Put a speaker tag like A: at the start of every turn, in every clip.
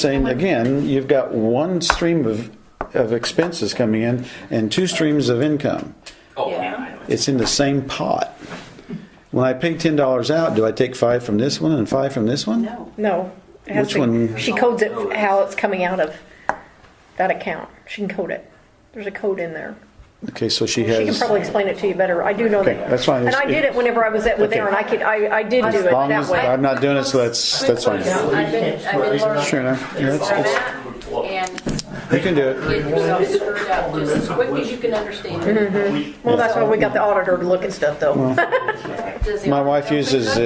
A: saying, again, you've got one stream of, of expenses coming in and two streams of income.
B: Oh,
C: Yeah.
B: yeah, I know.
A: It's in the same pot. When I pay ten dollars out, do I take five from this one and five from this one?
B: No.
C: No. it has
A: Which
C: to-
A: one?
C: She codes it how it's coming out of that account. She can code it. There's a code in there.
A: Okay, so she
C: She can
A: has,
C: probably explain it to you better. I do know
A: Okay,
C: that.
A: that's fine.
C: And I did it whenever I was at with
A: Okay.
C: Aaron. I could, I, I did do it
A: as long as,
C: that way.
A: I'm not doing it, so that's, that's fine.
D: I've been, I've been learning.
A: Sure enough, yeah, it's- it's-
D: And
A: You can do it.
D: get yourself sorted out just as quick as you can understand it.
C: Well, that's why we got the auditor to look at stuff though.
D: Does the
A: My wife
D: office
A: uses
D: open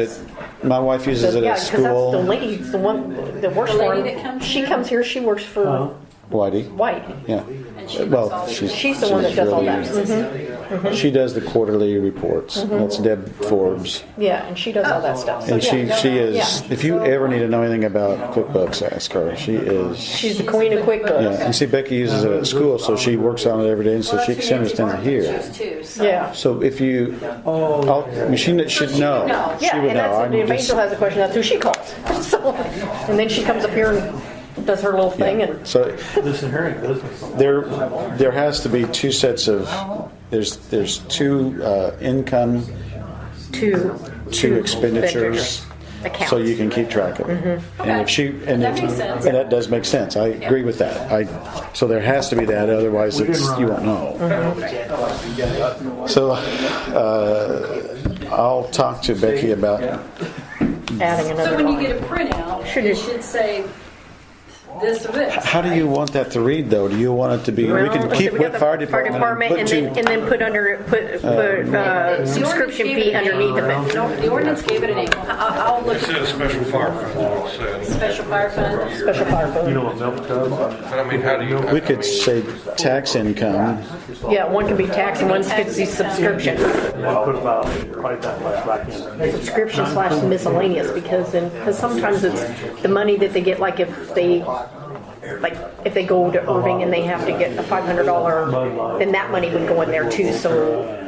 A: it, my wife uses it
C: Yeah,
A: at
C: because that's the
A: school.
C: lady, the one that works
D: The
C: for
D: lady that
C: him.
D: comes
C: She
D: here?
C: comes here, she works for
A: Whitey,
C: White.
A: yeah.
D: and she puts
A: Well,
D: all the-
A: she's.
C: She's the one that does all
A: really-
C: that. Mm-hmm. Mhm.
A: She does the quarterly reports. That's Deb Forbes.
C: Yeah, and she does all
D: Oh.
C: that stuff. So,
A: And she,
C: yeah.
A: she is,
C: Yeah.
A: if you ever need to know anything about QuickBooks, ask her. She is,
C: She's the queen of
A: yeah,
C: QuickBooks.
A: and see Becky uses it at school, so she works on it every day, and so
D: Well,
A: she
D: that's
A: she
D: who Nancy
A: understands it
D: Barton
A: here.
D: chose too, so-
C: Yeah.
A: So if you,
C: Oh.
A: I'll, I mean, she kn- should
D: she would
A: know.
D: know.
A: She
C: Yeah,
A: would
C: and
A: know.
C: that's,
A: I'm
C: if
A: just-
C: Angel has a question, that's who she calls. So, and then she comes up here and does her little thing
A: yeah.
C: and,
A: So
E: This inherent business.
A: there, there has to be two sets of, there's, there's two uh, income,
C: two
A: two expenditures.
C: accounts.
A: So you can keep track of it. And if she, and
D: That
A: if-
D: makes sense.
A: and that does make sense. I agree with that. I, so there has to be that, otherwise it's, you won't know. So, uh, I'll talk to Becky about,
C: Adding
D: So
C: another
D: when you
C: line.
D: get a printout,
C: Should
D: it
C: it-
D: should say this or this.
A: how do you want that to read though? Do you want it to be, we can
C: Well,
A: keep
C: so we got
A: with
C: the
A: fire department and put
C: and then,
A: two.
C: and then put under, put, put, uh,
D: The ordinance
C: subscription
D: gave
C: fee
D: it an
C: underneath of
D: angle.
C: it.
D: No, The ordinance gave it an angle. I- I'll look
F: It
D: at
F: said a special fire fund, it said.
D: special fire fund.
C: Special fire
E: You
C: fund.
E: know what milk does?
F: But I mean, how do you?
A: We could say tax income,
C: Yeah, one can be tax and one could be subscription.
E: I put about probably that much back in.
C: Subscription slash miscellaneous because then, because sometimes it's the money that they get, like if they, like if they go to Irving and they have to get a five hundred dollar, then that money would go in there too, so.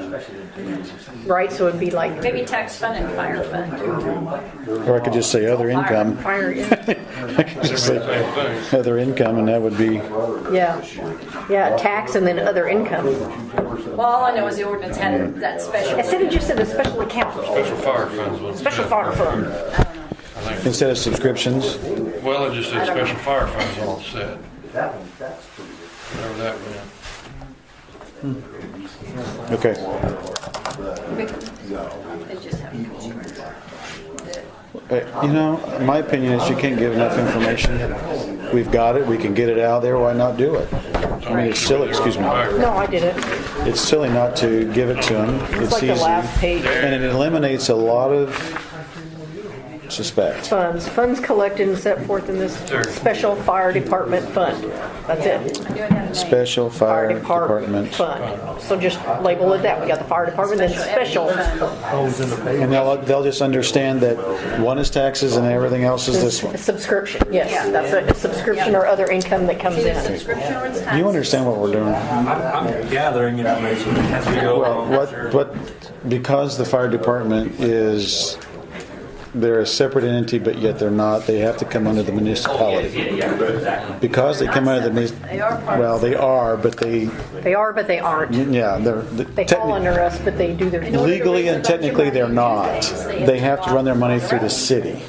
C: Right, so it'd be like
D: Maybe tax fund and fire fund.
A: or I could just say other income.
C: fire, yeah,
A: I could just say
F: Same thing.
A: Other income and that would be,
C: yeah, yeah, tax and then other income.
D: Well, all I know is the ordinance had that special.
C: Instead of just in a special account,
F: Special fire funds was.
C: special fire fund.
A: instead of subscriptions,
F: Well, it just said special fire funds all it said. Whatever that meant.
A: okay.
D: They just have to come to it.
A: Uh, You know, my opinion is you can't give enough information. We've got it, we can get it out there, why not do it? I mean, it's silly, excuse me,
C: No, I did it.
A: it's silly not to give it to them,
C: It's
A: it's
C: like the last
A: easy.
C: page.
A: And it eliminates a lot of suspects.
C: Funds, funds collected and set forth in this special fire department fund. That's it.
D: Do it have a name?
A: Special
C: Fire
A: Fire
C: department
A: Uh, Department.
C: fund. So just label it that. We got the fire department, then special.
E: Holes in the
A: And they'll, they'll just understand that one is taxes and everything else is this one.
C: Subscription, yes, that's it. It's Subscription or other income that comes
D: Either
C: in.
D: subscription or it's
A: Do
D: tax.
A: you understand what we're doing?
G: I'm gathering information as we go along.
A: What, what, because the fire department is, they're a separate entity, but yet they're not, they have to come under the municipality. Because they come under the,
D: They
A: muni-
D: are part
A: well,
D: of,
A: they are, but they,
C: They are, but they aren't.
A: yeah, they're,
C: They fall
A: techni-
C: under us, but they do their.
A: legally and technically, they're not. They have to run their money through the city.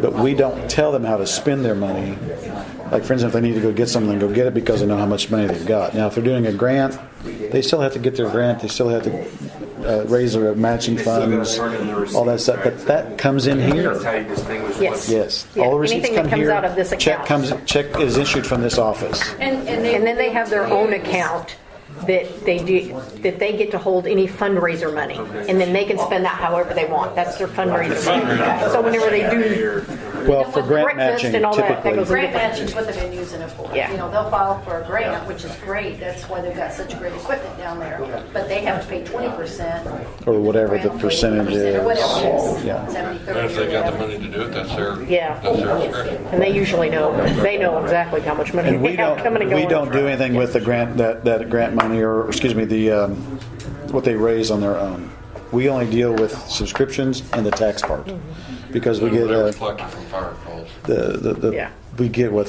A: But we don't tell them how to spend their money. Like, for instance, if they need to go get something, go get it because they know how much money they've got. Now, if they're doing a grant, they still have to get their grant, they still have to uh, raise their matching funds, all that stuff, but that comes in
G: That's how
A: here.
G: you distinguish what's.
C: Yes.
A: Yes.
C: Yeah,
A: All the receipts
C: anything that
A: come
C: comes
A: here.
C: out of this
A: Check
C: account.
A: comes, check is issued from this office.
D: and, and
C: And then they
D: will
C: have their own
D: use-
C: account that they do, that they get to hold any fundraiser money. And then they can spend that however they want. That's their fundraiser money. So whenever they do,
A: Well, for grant
C: Breakfast
A: matching
C: and all that, that
A: typically.
C: goes in.
D: Grant match is what they've been using it for.
C: Yeah.
D: You know, they'll file for a grant, which is great, that's why they've got such great equipment down there, but they have to pay twenty percent.
A: Or whatever the percentage
D: Or whatever it
A: is.
D: is,
A: Yeah.
D: seventy,
F: And
D: thirty.
F: if they got the money to do it, that's their,
C: Yeah.
F: that's their discretion.
C: and they usually know, they know exactly how much money
A: And
C: they
A: we
C: have
A: don't,
C: coming and going.
A: we don't do anything with the grant, that, that grant money, or, excuse me, the, um, what they raise on their own. We only deal with subscriptions and the tax part, because we get,
F: Whatever
A: uh,
F: collected from fire calls.
A: the, the-
C: Mm-hmm. Yeah.
A: the, we get what